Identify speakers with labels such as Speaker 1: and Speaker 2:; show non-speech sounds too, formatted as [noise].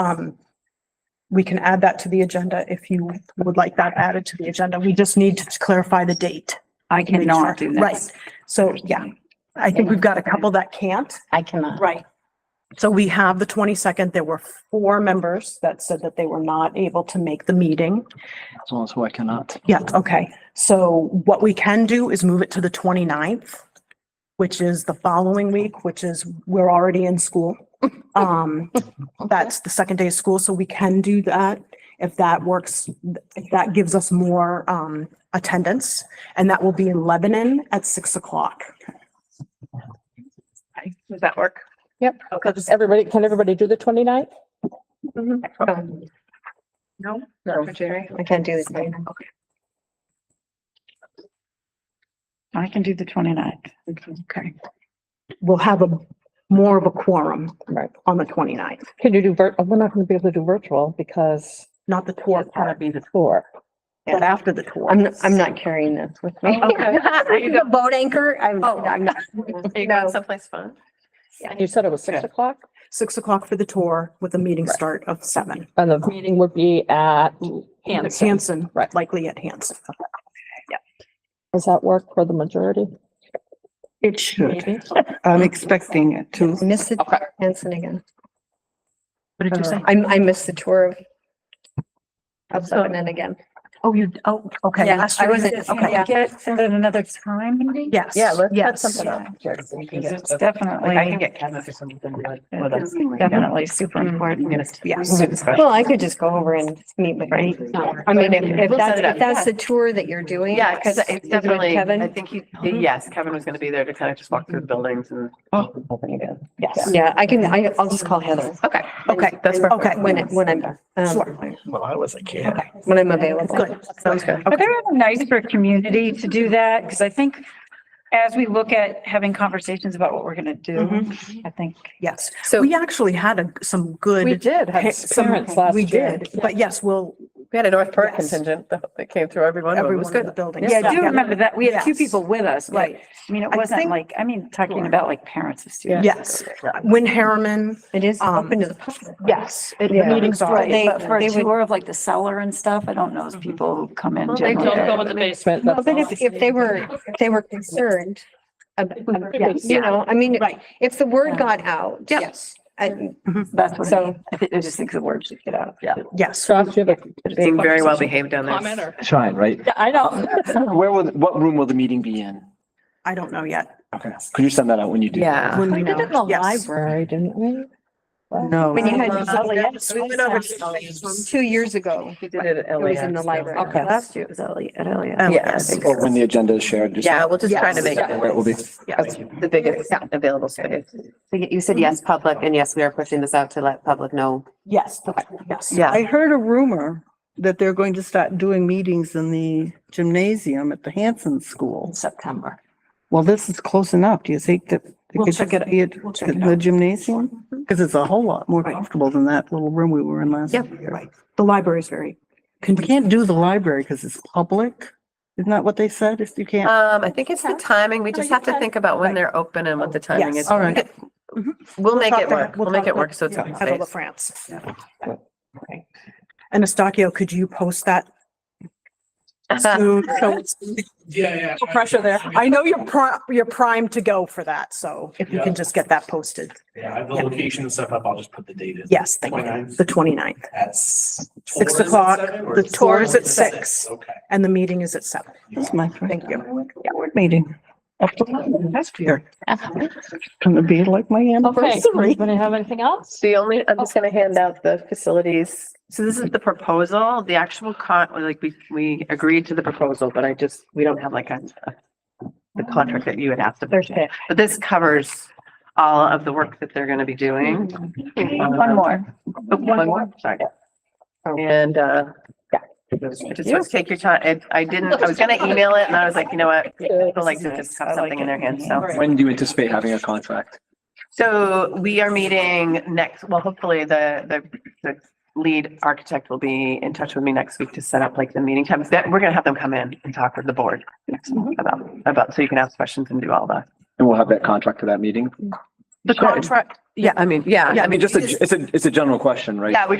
Speaker 1: Um, we can add that to the agenda if you would like that added to the agenda. We just need to clarify the date.
Speaker 2: I cannot do Oh, that.
Speaker 1: Right. So, yeah, I think we've got a couple that can't.
Speaker 3: I cannot.
Speaker 1: Right. So we have the twenty-second. There were four members that said that they were not able to make the meeting.
Speaker 4: That's also I cannot.
Speaker 1: Yeah, okay. So what we can do is move it to the 29th, which is the following week, which is, we're already in
Speaker 3: [laughs]
Speaker 1: school. Um, that's the second day of school, so we can do that if that works, if that gives us more, um, attendance. And that will be in Lebanon at six o'clock.
Speaker 2: Okay, Does that work?
Speaker 3: Yep.
Speaker 2: Okay.
Speaker 3: Does Everybody, can everybody do the 29th?
Speaker 2: Oh. Um, No,
Speaker 3: No.
Speaker 2: for Jerry.
Speaker 3: I can't do the 29th.
Speaker 2: I can do the 29th. Okay.
Speaker 1: We'll have a, more of a quorum
Speaker 3: Right.
Speaker 1: on the 29th,
Speaker 3: Can you do vir, oh, we're not going to be able to do virtual because
Speaker 1: not the tour part,
Speaker 3: be the tour.
Speaker 1: but after the tour.
Speaker 3: I'm, I'm not carrying this with
Speaker 5: [laughs]
Speaker 3: me.
Speaker 2: Okay. There you go.
Speaker 3: boat anchor. I'm,
Speaker 2: Oh.
Speaker 6: [laughs]
Speaker 3: I'm not.
Speaker 2: You going
Speaker 3: No.
Speaker 2: someplace fun?
Speaker 3: And You said it was six
Speaker 4: Yeah.
Speaker 3: o'clock
Speaker 1: Six o'clock for the tour with a meeting
Speaker 3: Right.
Speaker 1: start of seven.
Speaker 3: and the meeting would be at Hanson.
Speaker 1: Hanson,
Speaker 3: Right.
Speaker 1: likely at Hanson.
Speaker 3: Does that work for the majority?
Speaker 7: It should. I'm expecting it to.
Speaker 3: Miss the tour Hanson again.
Speaker 4: What did you say?
Speaker 3: I, I missed the tour of of Lebanon again.
Speaker 4: Oh, you, oh,
Speaker 1: Uh,
Speaker 4: okay.
Speaker 3: Yeah, I wasn't,
Speaker 1: Okay.
Speaker 3: okay.
Speaker 2: Get set at another time, maybe?
Speaker 1: Yes.
Speaker 3: Yeah, let's put
Speaker 1: yes.
Speaker 3: something up.
Speaker 2: Because it's
Speaker 4: Like, I can
Speaker 2: definitely,
Speaker 4: get Kevin for something like with us.
Speaker 2: it's definitely super important.
Speaker 1: Yes.
Speaker 3: Well, I could just go over and meet with him. I mean, if, if
Speaker 2: We'll
Speaker 3: that's,
Speaker 2: set it up.
Speaker 3: if that's the tour that you're doing.
Speaker 5: Yeah, because it's
Speaker 3: you doing
Speaker 5: definitely, I
Speaker 3: Kevin,
Speaker 5: think he, yes, Kevin was gonna be there to kind of just walk through the buildings and.
Speaker 1: Yes.
Speaker 3: yeah, I can, I, I'll just call Heather
Speaker 5: Okay.
Speaker 1: Okay,
Speaker 5: That's perfect.
Speaker 1: okay.
Speaker 3: when, it- when I'm, um,
Speaker 1: Sure.
Speaker 4: Well, I was a kid.
Speaker 3: when I'm available.
Speaker 1: Good.
Speaker 5: Sounds good.
Speaker 2: But they're nice for community to do that, because I think as we look at having conversations about what we're gonna do, I think.
Speaker 1: Yes.
Speaker 3: So-
Speaker 1: We actually had a- some good.
Speaker 3: did
Speaker 1: pa- some- We did, but yes, we'll,
Speaker 5: We had a North
Speaker 1: Perk
Speaker 5: Park
Speaker 1: Yes.
Speaker 5: contingent that came through everyone.
Speaker 1: everyone in the building.
Speaker 2: Yeah, I do remember that. We had two
Speaker 1: Yes.
Speaker 2: people with us, but,
Speaker 1: Right,
Speaker 2: I mean, it
Speaker 1: I
Speaker 2: wasn't
Speaker 1: think-
Speaker 2: like, I mean, talking about like parents of students.
Speaker 1: yes. Wynn Harriman,
Speaker 3: It is
Speaker 1: Um,
Speaker 3: open to the public.
Speaker 1: yes, it- the
Speaker 3: Yeah.
Speaker 1: meetings are.
Speaker 3: Right.
Speaker 2: But for
Speaker 3: they
Speaker 2: a
Speaker 3: would-
Speaker 2: tour of like the cellar and stuff, I don't know if people who come in
Speaker 5: They
Speaker 2: generally.
Speaker 5: don't go
Speaker 2: are-
Speaker 5: in the basement.
Speaker 3: No, But if, if they were, if they were concerned, ab- ab-
Speaker 1: Yes.
Speaker 3: you know, I mean,
Speaker 1: Right.
Speaker 3: if the word got out.
Speaker 1: Yes.
Speaker 3: I-
Speaker 2: That's what, I
Speaker 3: So-
Speaker 2: mean. I think, I just think the word should get out.
Speaker 1: Yes.
Speaker 5: Being very well behaved down there.
Speaker 4: Shine, right?
Speaker 2: I [laughs] know.
Speaker 4: Where will, what room will the meeting be in?
Speaker 1: I don't know yet.
Speaker 4: Okay. Could you send that out when you do?
Speaker 5: Yeah.
Speaker 1: When we know. Yes.
Speaker 3: didn't we?
Speaker 7: No.
Speaker 3: When you had
Speaker 1: Yes.
Speaker 3: two years ago,
Speaker 5: We did it at
Speaker 3: it was in the
Speaker 5: LAX.
Speaker 3: library.
Speaker 2: Okay.
Speaker 3: Last
Speaker 2: year it was Elliot, at Elliot.
Speaker 5: Oh, Yes.
Speaker 4: Or when the agenda is shared? just-
Speaker 5: Yeah, we'll just try to
Speaker 1: Yes.
Speaker 5: make
Speaker 4: Where it will
Speaker 5: it
Speaker 4: be.
Speaker 5: the biggest available space.
Speaker 6: So You you said yes, public, and yes, we are pushing this out to let public know.
Speaker 1: Yes, yes.
Speaker 5: Yeah.
Speaker 7: I heard a rumor that they're going to start doing meetings in the gymnasium at the Hanson School.
Speaker 2: September.
Speaker 7: Well, this is close enough. Do you think that? they
Speaker 1: We'll
Speaker 7: could
Speaker 1: check it-
Speaker 7: be at
Speaker 1: we'll check it
Speaker 7: The gymnasium? Because it's a whole lot more comfortable than that little room we were in last
Speaker 1: Yep.
Speaker 7: year.
Speaker 1: Right. The library is very.
Speaker 7: We can't do the library because it's public. Isn't that what they said? If you can't,
Speaker 5: Um, I think it's the timing. We just have to think about when they're open and what the timing
Speaker 1: Yes. Mm-hmm.
Speaker 5: is.
Speaker 7: all right.
Speaker 5: We'll make
Speaker 1: talk
Speaker 5: it
Speaker 1: to-
Speaker 5: work. We'll
Speaker 1: talk
Speaker 5: make
Speaker 1: to-
Speaker 5: it work so it's
Speaker 1: yeah,
Speaker 5: open
Speaker 1: Ethel
Speaker 5: space.
Speaker 1: LaFrance. And Estacio, could you post
Speaker 5: [laughs]
Speaker 1: that soon? So it's
Speaker 8: Yeah,
Speaker 1: no pressure there. I know you're pri- you're primed to go for that, so if you can just get that posted.
Speaker 8: Yeah, I have the location and stuff up. I'll just put the date in.
Speaker 1: Yes, thank you.
Speaker 8: 29th.
Speaker 1: The 29th
Speaker 8: At s- tour
Speaker 1: Six
Speaker 8: is at
Speaker 1: o'clock.
Speaker 8: seven, or
Speaker 1: The
Speaker 8: is-
Speaker 1: tour is at six.
Speaker 8: Okay.
Speaker 1: and the meeting is at seven.
Speaker 7: That's my
Speaker 1: Thank you.
Speaker 7: board meeting. After last year. Gonna be like my
Speaker 3: Okay,
Speaker 7: anniversary.
Speaker 3: anybody have anything else?
Speaker 5: The only, I'm just gonna hand out the facilities. So this is the proposal, the actual con, like we, we agreed to the proposal, but I just, we don't have like a the contract that you had asked about. But this covers all of the work that they're gonna be doing.
Speaker 1: Mm-hmm.
Speaker 5: Um,
Speaker 2: One more.
Speaker 5: Oh, One more, sorry.
Speaker 1: Oh.
Speaker 5: And, uh, yeah. I Just want to take your time. And I didn't, I was gonna email it and I was like, you know what? [laughs] People like to just have something in their hands, so.
Speaker 4: When do you anticipate having a contract?
Speaker 5: So we are meeting next, well, hopefully the, the, the lead architect will be in touch with me next week to set up like the meeting times. That, we're gonna have them come in and talk with the board next month about, about, so you can ask questions and do all the.
Speaker 4: And we'll have that contract for that meeting?
Speaker 5: The contract, Yeah, I mean, yeah.
Speaker 4: I mean, just, a- it's a, it's a general question, right?
Speaker 5: Yeah, we